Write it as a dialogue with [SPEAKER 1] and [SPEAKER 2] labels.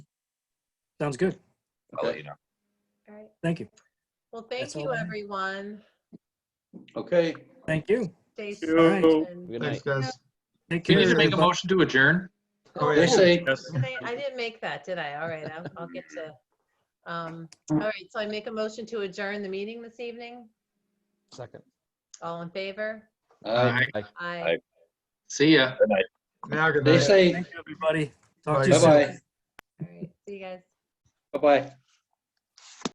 [SPEAKER 1] Sounds good.
[SPEAKER 2] I'll let you know.
[SPEAKER 3] All right.
[SPEAKER 1] Thank you.
[SPEAKER 3] Well, thank
[SPEAKER 1] That's all
[SPEAKER 3] you,
[SPEAKER 1] I have.
[SPEAKER 3] everyone.
[SPEAKER 4] Okay,
[SPEAKER 1] Thank you.
[SPEAKER 3] Stay safe.
[SPEAKER 5] you.
[SPEAKER 3] and-
[SPEAKER 6] Good
[SPEAKER 7] Thanks,
[SPEAKER 6] night.
[SPEAKER 7] guys.
[SPEAKER 1] Take
[SPEAKER 2] Do
[SPEAKER 1] care.
[SPEAKER 2] you need to make a
[SPEAKER 1] everybody.
[SPEAKER 2] motion to adjourn?
[SPEAKER 7] Oh,
[SPEAKER 4] they
[SPEAKER 7] yeah.
[SPEAKER 4] say,
[SPEAKER 5] Yes.
[SPEAKER 3] I didn't make that, did I? All right, I'll, I'll get to, um, all right, so I make a motion to adjourn the meeting this evening.
[SPEAKER 6] Second.
[SPEAKER 3] All in favor?
[SPEAKER 4] uh,
[SPEAKER 3] Aye.
[SPEAKER 2] See ya.
[SPEAKER 7] Now, good
[SPEAKER 4] they
[SPEAKER 7] night.
[SPEAKER 4] say,
[SPEAKER 1] Thank you, everybody. Talk to you soon.
[SPEAKER 4] bye-bye,
[SPEAKER 3] All right, see you guys.
[SPEAKER 4] bye-bye.